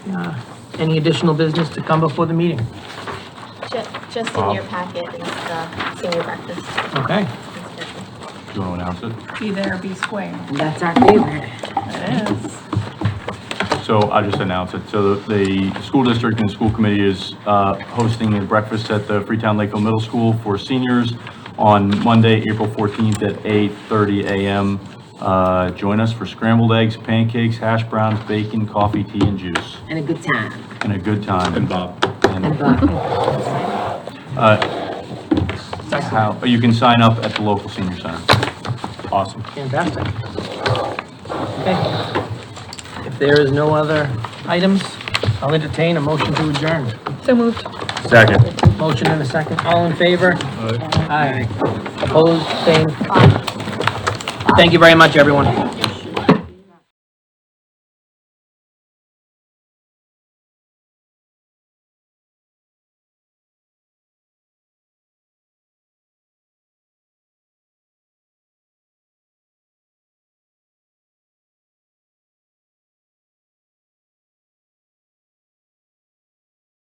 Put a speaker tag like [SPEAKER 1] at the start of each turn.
[SPEAKER 1] Uh, Any additional business to come before the meeting?
[SPEAKER 2] Ju- Just in your packet is the senior breakfast.
[SPEAKER 1] Okay.
[SPEAKER 3] Do you want to announce
[SPEAKER 4] Be there, be square.
[SPEAKER 5] That's our favorite.
[SPEAKER 4] It is.
[SPEAKER 3] it? So I'll just announce it. So the the school district and the school committee is uh, hosting a breakfast at the Freetown Lakeville Middle School for seniors on Monday, April 14th at 8:30 a.m. Uh, Join us for scrambled eggs, pancakes, hash browns, bacon, coffee, tea, and juice,
[SPEAKER 5] And a good time.
[SPEAKER 3] and a good time. And Bob.
[SPEAKER 5] And Bob.
[SPEAKER 3] How, you can sign up at the local senior center. Awesome.
[SPEAKER 1] Fantastic. Okay. If there is no other items, I'll entertain a motion to adjourn.
[SPEAKER 4] So moved.
[SPEAKER 3] Second.
[SPEAKER 1] Motion and a second. All in favor? Aye. Opposed, same. Thank you very much, everyone.